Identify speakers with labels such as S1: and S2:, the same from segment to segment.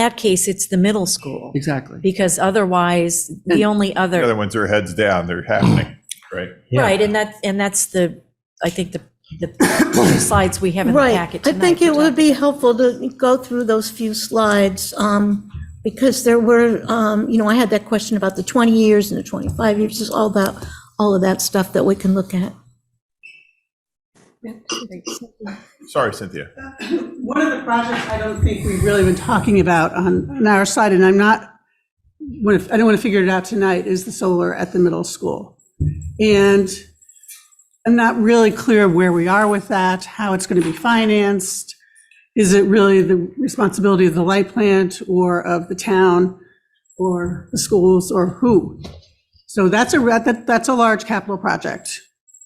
S1: that case, it's the middle school,
S2: Exactly.
S1: because otherwise, the only
S3: The other
S1: other,
S3: ones are heads down, they're happening, right?
S4: Yeah.
S1: right, and that, and that's the, I think the, the slides we have in the packet
S5: Right. I
S1: tonight.
S5: think it
S1: were
S5: would be helpful to go through those few slides, um, because there were, um, you know, I had that question about the 20 years and the 25 years, just all that, all of that stuff that we can look at.
S3: Sorry, Cynthia.
S6: One of the projects I don't think we've really been talking about on, on our side, and I'm not, I don't want to figure it out tonight, is the solar at the middle school. And I'm not really clear where we are with that, how it's going to be financed. Is it really the responsibility of the light plant or of the town or the schools or who? So that's a, that, that's a large capital project.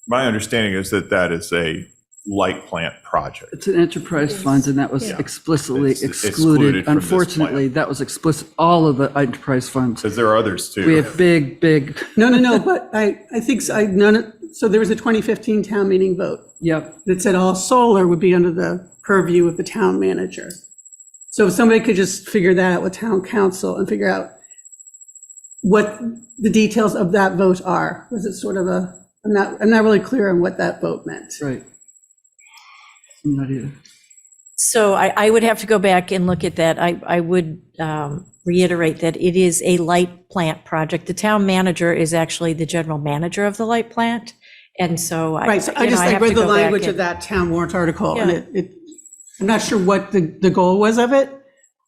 S3: My understanding is that that is a light plant project.
S2: It's an enterprise fund, and that was
S3: Yeah.
S2: explicitly
S3: It's excluded
S2: excluded.
S3: from this plan.
S2: Unfortunately, that was explicit, all of the enterprise funds.
S3: Because there are others too.
S2: We have big, big,
S6: No, no, no, but I, I think, so- I, none, of- so there was a 2015 town meeting vote.
S2: yep,
S6: that said all solar would be under the purview of the town manager. So if somebody could just figure that out with town council and figure out what the details of that vote are, was it sort of a, I'm not, I'm not really clear on what that vote meant.
S2: right. I'm Not either.
S1: So I, I would have to go back and look at that. I, I would um, reiterate that it is a light plant project. The town manager is actually the general manager of the light plant, and so I,
S6: Right, so I
S1: you know,
S6: just,
S1: I
S6: I
S1: have to
S6: read the
S1: go back
S6: language of
S1: and-
S6: that town warrant article, and
S1: Yeah.
S6: it, it, I'm not sure what the, the goal was of it,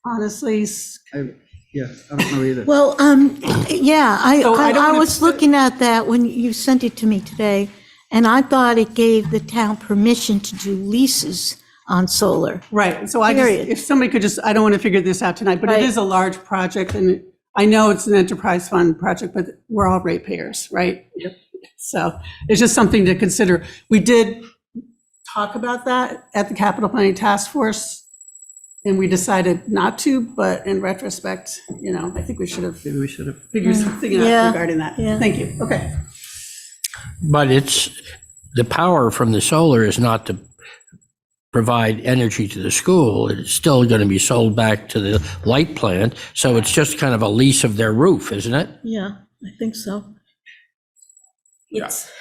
S6: honestly. S-
S2: I- Yeah, I don't know either.
S5: Well, um, yeah, I,
S6: So I don't
S5: I I
S6: wanna-
S5: was looking at that when you sent it to me today, and I thought it gave the town permission to do leases on solar.
S6: Right, so I just,
S5: Period.
S6: if somebody could just, I don't want to figure this out tonight, but it
S5: Right.
S6: is a large project, and I know it's an enterprise fund project, but we're all ratepayers, right? Yep. So it's just something to consider. We did talk about that at the capital planning task force, and we decided not to, but in retrospect, you know, I think we should have
S2: Maybe we should have.
S6: figured something out
S5: Yeah,
S6: regarding that.
S5: yeah.
S6: Thank you, okay.
S4: But it's, the power from the solar is not to provide energy to the school. It's still going to be sold back to the light plant. So it's just kind of a lease of their roof, isn't it?
S5: Yeah, I think so.
S1: It's-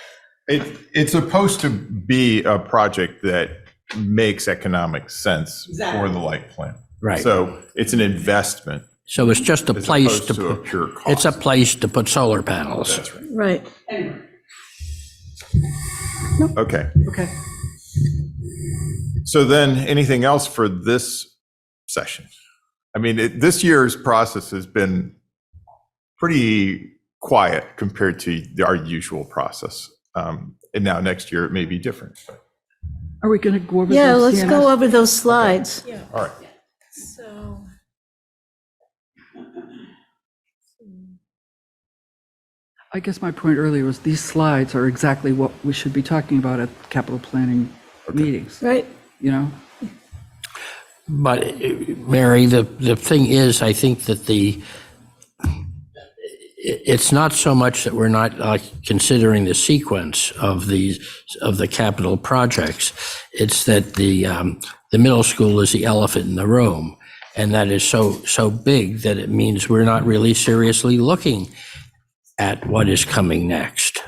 S3: It, it's supposed to be a project that makes economic sense for the light plant.
S4: Right.
S3: So it's an investment
S4: So it's just a
S3: as
S4: place
S3: opposed
S4: to,
S3: to a
S4: pu-
S3: pure cost.
S4: it's a place to put solar panels.
S3: That's right.
S5: Right.
S3: Okay.
S2: Okay.
S3: So then, anything else for this session? I mean, it- this year's process has been pretty quiet compared to our usual process. Um, And now next year, it may be different.
S2: Are we going to go over this?
S5: Yeah, let's
S2: Deanna?
S5: go over those slides.
S3: All right.
S1: So.
S2: I guess my point earlier was these slides are exactly what we should be talking about at capital planning meetings,
S5: Right.
S2: you know?
S4: But, uh, Mary, the, the thing is, I think that the, it- it's not so much that we're not uh, considering the sequence of these, of the capital projects. It's that the, um, the middle school is the elephant in the room. And that is so, so big that it means we're not really seriously looking at what is coming next.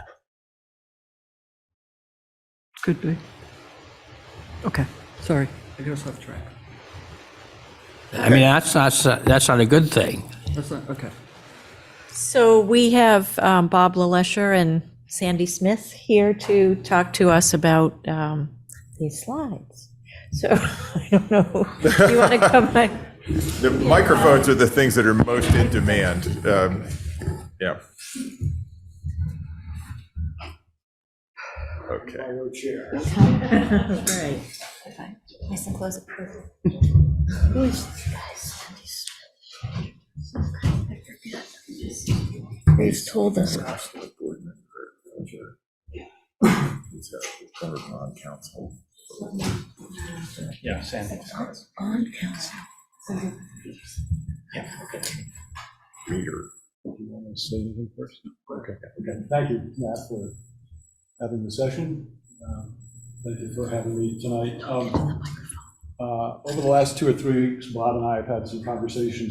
S2: Could be. Okay, sorry. I got us off track.
S4: I mean, that's not, that's not a good thing.
S2: That's not, okay.
S1: So we have um, Bob LaLesher and Sandy Smith here to talk to us about um, these slides. So I don't know, do you want to come back?
S3: The microphones are the things that are most in demand. Um, Yeah. Okay.
S1: Right.
S5: They've told us.
S7: Yeah, Sandy. Do you want to say anything first? Okay. Okay, thank you, Matt, for having the session. Um, Thank you for having me tonight. Um, uh, Over the last two or three weeks, Bob and I have had some conversations